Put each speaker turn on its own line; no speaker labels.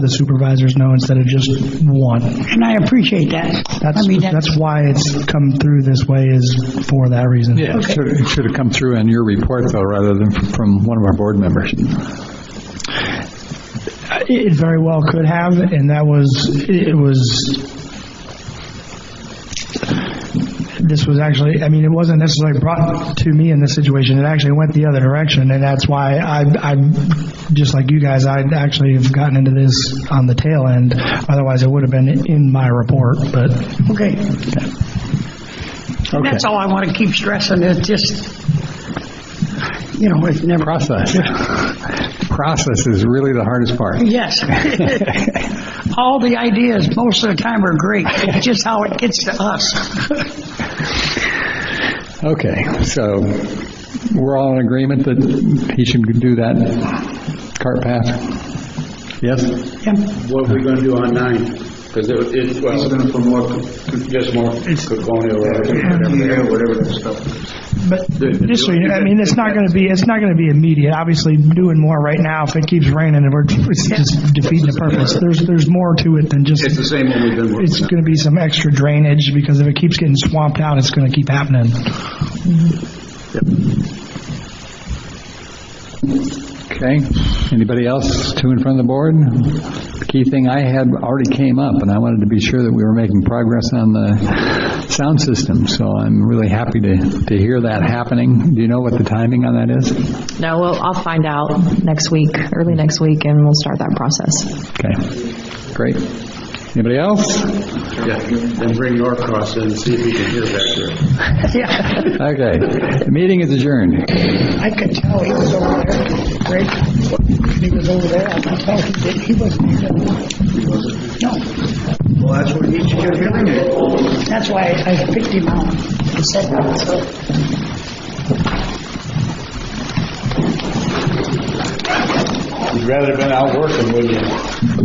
the supervisors know instead of just one.
And I appreciate that. I
That's,
mean, that-
that's why it's come through this way is for that reason.
Yeah, it should- it should have come through in your report, though, rather than f- from one of our board members.
It very well could have, and that was, it was, this was actually, I mean, it wasn't necessarily brought to me in this situation. It actually went the other direction, and that's why I, I'm, just like you guys, I actually have gotten into this on the tail end. Otherwise, it would have been in my report, but
Okay.
Okay.
That's all I want to keep stressing, it's just, you know, it's never.
Process. Process is really the hardest part.
Yes. All the ideas, most of the time, are great, it's just how it gets to us.
Okay, so we're all in agreement that he should do that cart path? Yes?
Yeah.
What are we gonna do on nine? Because it, it, well. gonna promote. Just more colonial, whatever. Whatever that stuff.
But just so you know, I mean, it's not going to be, it's not going to be immediate. Obviously, doing more right now, if it keeps raining, and we're, it's just defeating the purpose. There's, there's more to it than just,
It's the same one we've been
it's
working on.
going to be some extra drainage, because if it keeps getting swamped out, it's going to keep happening.
Okay. Anybody else to in front of the board? The key thing I had already came up, and I wanted to be sure that we were making progress on the sound system, so I'm really happy to, to hear that happening. Do you know what the timing on that is?
No, well, I'll find out next week, early next week, and we'll start that process.
Okay, great. Anybody else?
Yeah, then bring Norcross in and see if he can hear back there.
Yeah,
Okay, the meeting is adjourned.
I could tell he was over there, Great. He was over there, I could tell he did, he wasn't here. No,
Well, that's what he should hear
that's why I picked him out and said that, so.
You'd rather have been out working, wouldn't you?